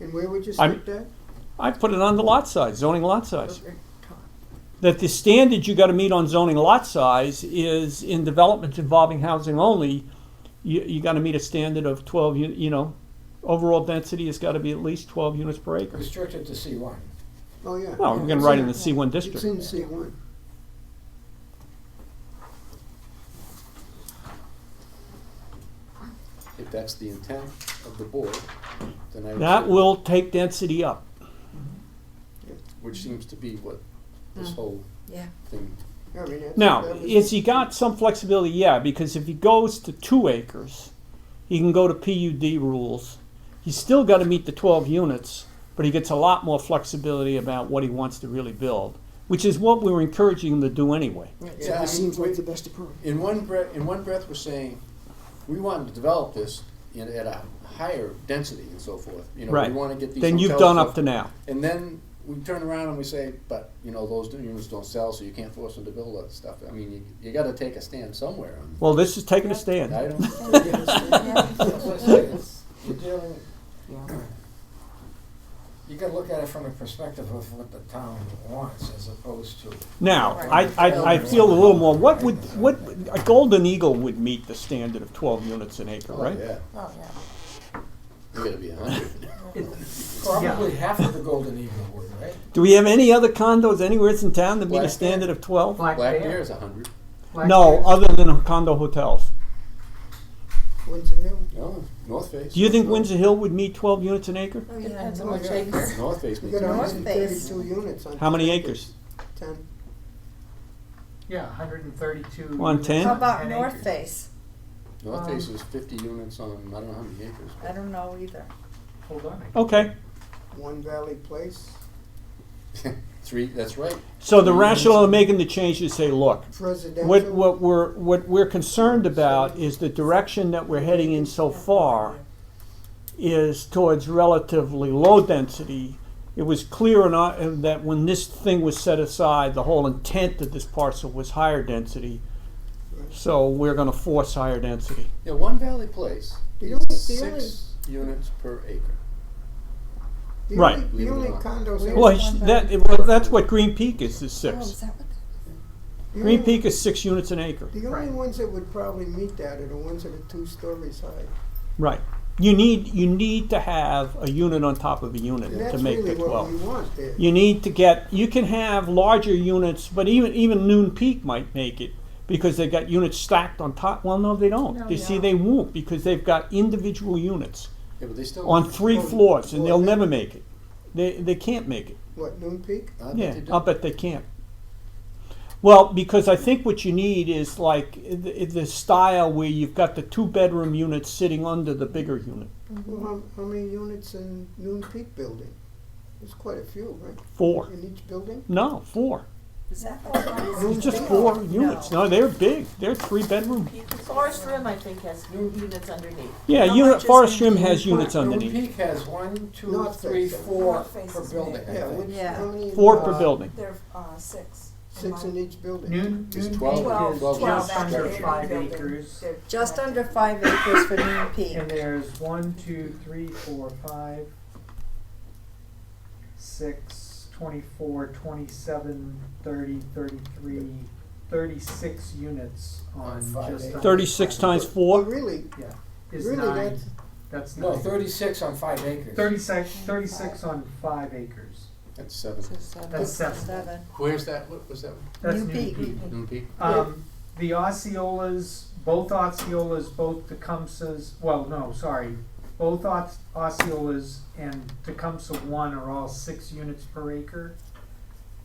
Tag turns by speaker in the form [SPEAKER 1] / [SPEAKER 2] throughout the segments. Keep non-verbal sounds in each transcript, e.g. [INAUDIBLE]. [SPEAKER 1] And where would you
[SPEAKER 2] I'm-
[SPEAKER 1] stick that?
[SPEAKER 2] I put it on the lot size, zoning lot size.
[SPEAKER 1] Okay, Tom.
[SPEAKER 2] That the standard you gotta meet on zoning lot size is in developments involving housing only, you, you gotta meet a standard of twelve, you, you know, overall density has gotta be at least twelve units per acre.
[SPEAKER 3] restricted to C one.
[SPEAKER 1] Oh, yeah.
[SPEAKER 2] Well, we're gonna write in the C one
[SPEAKER 1] It's
[SPEAKER 2] district.
[SPEAKER 1] in C one.
[SPEAKER 4] If that's the intent of the board, then I. would
[SPEAKER 2] That
[SPEAKER 4] say-
[SPEAKER 2] will take density up.
[SPEAKER 4] Which seems to be what this
[SPEAKER 5] Mm.
[SPEAKER 4] whole
[SPEAKER 5] Yeah.
[SPEAKER 4] thing,
[SPEAKER 1] I mean, that's.
[SPEAKER 2] Now,
[SPEAKER 1] that was-
[SPEAKER 2] is he got some flexibility? Yeah, because if he goes to two acres, he can go to PUD rules. He's still got to meet the 12 units, but he gets a lot more flexibility about what he wants to really build, which is what we were encouraging him to do anyway.
[SPEAKER 5] Right.
[SPEAKER 4] Yeah, I
[SPEAKER 5] So
[SPEAKER 4] mean,
[SPEAKER 5] it seems
[SPEAKER 4] we-
[SPEAKER 5] like the
[SPEAKER 1] [LAUGHS]
[SPEAKER 5] best approach.
[SPEAKER 4] in one breath, in one breath, we're saying, we want to develop this in, at a higher density and so forth, you know, we
[SPEAKER 2] Right.
[SPEAKER 4] wanna get these hotels.
[SPEAKER 2] Then you've done
[SPEAKER 4] up-
[SPEAKER 2] up to now.
[SPEAKER 4] And then we turn around and we say, but, you know, those units don't sell, so you can't force them to build that stuff, I mean, you, you gotta take a stand somewhere on
[SPEAKER 2] Well, this is taking a
[SPEAKER 4] And I
[SPEAKER 2] stand.
[SPEAKER 4] don't.
[SPEAKER 3] You're dealing,
[SPEAKER 5] Yeah.
[SPEAKER 3] you gotta look at it from the perspective of what the town wants as opposed to.
[SPEAKER 2] Now, I, I, I feel a little more. What would what a golden eagle would meet the standard of 12 units an acre,
[SPEAKER 4] Oh,
[SPEAKER 2] right?
[SPEAKER 4] Yeah,
[SPEAKER 5] Oh, yeah.
[SPEAKER 4] you gotta be a hundred.
[SPEAKER 3] Probably half of the Golden Eagle would, right?
[SPEAKER 2] Do we have any other condos anywhere else in town that meet a
[SPEAKER 4] Black
[SPEAKER 2] standard of 12?
[SPEAKER 6] Black
[SPEAKER 4] Black
[SPEAKER 6] Bear.
[SPEAKER 4] Bear is a hundred,
[SPEAKER 6] Black
[SPEAKER 2] No,
[SPEAKER 6] Bear.
[SPEAKER 2] other than condo hotels.
[SPEAKER 1] Windsor Hill.
[SPEAKER 4] no, North Face.
[SPEAKER 2] Do you think Windsor Hill would meet twelve units an acre?
[SPEAKER 5] Oh, yeah.
[SPEAKER 1] on what acre.
[SPEAKER 4] North Face
[SPEAKER 1] You
[SPEAKER 4] means.
[SPEAKER 1] got
[SPEAKER 4] a
[SPEAKER 1] a
[SPEAKER 4] hundred.
[SPEAKER 1] hundred and
[SPEAKER 5] North Face.
[SPEAKER 1] thirty-two units on.
[SPEAKER 2] How many acres?
[SPEAKER 1] Ten.
[SPEAKER 6] Yeah, 132.
[SPEAKER 2] On 10?
[SPEAKER 6] An
[SPEAKER 5] How about North
[SPEAKER 6] acre.
[SPEAKER 5] Face?
[SPEAKER 4] North
[SPEAKER 6] Um,
[SPEAKER 4] Face is fifty units on, I don't know how many acres. [LAUGHS] but-
[SPEAKER 5] I don't know either.
[SPEAKER 6] Hold on.
[SPEAKER 2] Okay,
[SPEAKER 1] One Valley Place,
[SPEAKER 4] Three, that's right.
[SPEAKER 2] so the rationale of making the change is say, look,
[SPEAKER 1] presidential.
[SPEAKER 2] what, what we're, what we're concerned about is the direction that we're heading in so far is towards relatively low density. It was clear in our- in that when this thing was set aside, the whole intent of this parcel was higher density. So we're gonna force higher density.
[SPEAKER 4] Yeah, One Valley Place
[SPEAKER 1] The
[SPEAKER 4] is
[SPEAKER 1] only- the
[SPEAKER 4] six units per acre.
[SPEAKER 1] The
[SPEAKER 2] Right.
[SPEAKER 1] only- The only condos. in-
[SPEAKER 2] Well,
[SPEAKER 5] One
[SPEAKER 2] it's-
[SPEAKER 5] valley.
[SPEAKER 2] that, it- well, that's what Green Peak is, is
[SPEAKER 5] Oh, is
[SPEAKER 2] six.
[SPEAKER 5] that what?
[SPEAKER 1] the
[SPEAKER 2] Green
[SPEAKER 1] only-
[SPEAKER 2] Peak is six units an acre.
[SPEAKER 1] The only
[SPEAKER 6] Right.
[SPEAKER 1] ones that would probably meet that are the ones that are two stories high.
[SPEAKER 2] Right. You need, you need to have a unit on top of a
[SPEAKER 1] And
[SPEAKER 2] unit
[SPEAKER 1] that's
[SPEAKER 2] to make
[SPEAKER 1] really
[SPEAKER 2] the
[SPEAKER 1] what we
[SPEAKER 2] twelve.
[SPEAKER 1] want there.
[SPEAKER 2] You need to get, you can have larger units, but even, even Noon Peak might make it because they've got units stacked on top. Well, no, they don't.
[SPEAKER 5] No,
[SPEAKER 2] You
[SPEAKER 5] they
[SPEAKER 2] see,
[SPEAKER 5] don't.
[SPEAKER 2] they won't because they've got individual units
[SPEAKER 4] Yeah, but they still.
[SPEAKER 2] on three
[SPEAKER 1] Well,
[SPEAKER 2] floors and
[SPEAKER 1] well,
[SPEAKER 2] they'll
[SPEAKER 1] they-
[SPEAKER 2] never make it. They, they can't make it.
[SPEAKER 1] What, Noon Peak?
[SPEAKER 4] I bet
[SPEAKER 2] Yeah,
[SPEAKER 4] they do.
[SPEAKER 2] I'll bet they can't. Well, because I think what you need is like the, the style where you've got the two bedroom units sitting under the bigger unit.
[SPEAKER 1] Well, how, how many units in Noon Peak building? There's quite a few, right?
[SPEAKER 2] Four.
[SPEAKER 1] In each building?
[SPEAKER 2] No, four.
[SPEAKER 5] Is that what it
[SPEAKER 2] It's
[SPEAKER 5] is?
[SPEAKER 2] just four units. No, they're big. They're three bedroom.
[SPEAKER 7] Forest Rim, I think, has units underneath.
[SPEAKER 2] Yeah,
[SPEAKER 7] How
[SPEAKER 2] unit,
[SPEAKER 7] much is
[SPEAKER 2] Forest
[SPEAKER 7] in
[SPEAKER 2] Rim has
[SPEAKER 7] Newport?
[SPEAKER 2] units
[SPEAKER 3] Golden
[SPEAKER 2] underneath.
[SPEAKER 3] Peak has one, two,
[SPEAKER 1] North
[SPEAKER 3] three,
[SPEAKER 1] Face.
[SPEAKER 3] four
[SPEAKER 7] North Face
[SPEAKER 3] per
[SPEAKER 7] is
[SPEAKER 3] building, I
[SPEAKER 1] Yeah,
[SPEAKER 3] think.
[SPEAKER 1] which,
[SPEAKER 5] Yeah.
[SPEAKER 1] how many?
[SPEAKER 2] Four
[SPEAKER 1] uh,
[SPEAKER 2] per building.
[SPEAKER 7] There are uh, six.
[SPEAKER 1] Six in each building.
[SPEAKER 6] Noon,
[SPEAKER 4] It's
[SPEAKER 6] noon
[SPEAKER 4] 12,
[SPEAKER 6] peak
[SPEAKER 7] Twelve,
[SPEAKER 6] is
[SPEAKER 4] Well,
[SPEAKER 7] twelve
[SPEAKER 6] just
[SPEAKER 7] actually
[SPEAKER 6] under
[SPEAKER 7] in
[SPEAKER 6] five
[SPEAKER 7] the building.
[SPEAKER 6] acres.
[SPEAKER 7] They're-
[SPEAKER 5] Just under five acres for Noon Peak.
[SPEAKER 6] And there's one, two, three, four, five, six, twenty-four, twenty-seven, thirty, thirty-three, thirty-six units on
[SPEAKER 3] On five
[SPEAKER 6] just.
[SPEAKER 3] acres.
[SPEAKER 6] under
[SPEAKER 2] Thirty-six
[SPEAKER 6] five.
[SPEAKER 2] times
[SPEAKER 1] Well,
[SPEAKER 2] four.
[SPEAKER 1] really,
[SPEAKER 6] Yeah, is
[SPEAKER 1] really,
[SPEAKER 6] nine,
[SPEAKER 1] that's,
[SPEAKER 6] that's
[SPEAKER 3] No,
[SPEAKER 6] nine.
[SPEAKER 3] thirty-six on five acres.
[SPEAKER 6] Thirty-six, thirty-six on five acres.
[SPEAKER 4] That's seven.
[SPEAKER 6] That's seven.
[SPEAKER 5] uh, Seven.
[SPEAKER 4] Where's that, what was that?
[SPEAKER 6] That's
[SPEAKER 5] New
[SPEAKER 6] New
[SPEAKER 5] Peak.
[SPEAKER 6] Peak.
[SPEAKER 4] Dune Peak?
[SPEAKER 6] Um, the Osceolas, both Osceolas, both Tecumsehs, well, no, sorry, both Os- Osceolas and Tecumseh one are all six units per acre.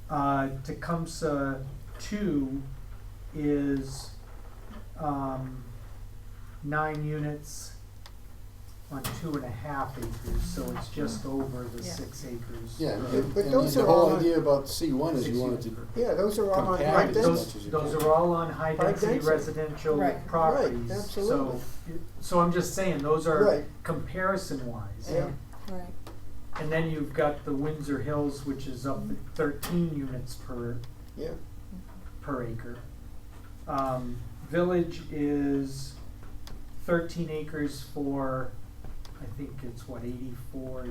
[SPEAKER 6] Uh, Tecumseh two is, um, nine units on two and a half acres, so it's just over the
[SPEAKER 5] Yeah.
[SPEAKER 6] six acres.
[SPEAKER 4] Yeah,
[SPEAKER 6] Uh,
[SPEAKER 4] and,
[SPEAKER 1] But
[SPEAKER 4] and
[SPEAKER 1] those
[SPEAKER 4] the
[SPEAKER 1] are
[SPEAKER 4] whole
[SPEAKER 1] all-
[SPEAKER 4] idea about C one is you
[SPEAKER 6] Six
[SPEAKER 4] wanted
[SPEAKER 6] units
[SPEAKER 4] to,
[SPEAKER 6] per
[SPEAKER 1] yeah, those are all on
[SPEAKER 4] Compare
[SPEAKER 1] high
[SPEAKER 4] it.
[SPEAKER 1] density.
[SPEAKER 6] Those,
[SPEAKER 4] as you
[SPEAKER 6] those
[SPEAKER 4] can.
[SPEAKER 6] are all on high density
[SPEAKER 1] density.
[SPEAKER 6] residential
[SPEAKER 5] Right, right,
[SPEAKER 6] properties, so,
[SPEAKER 1] absolutely.
[SPEAKER 6] so I'm just saying, those are
[SPEAKER 1] Right.
[SPEAKER 6] comparison wise.
[SPEAKER 1] Yeah.
[SPEAKER 5] Right.
[SPEAKER 6] And then you've got the Windsor Hills, which is up to thirteen units per,
[SPEAKER 1] Yeah,
[SPEAKER 6] per acre. Um, Village is thirteen acres for, I think it's what, eighty-four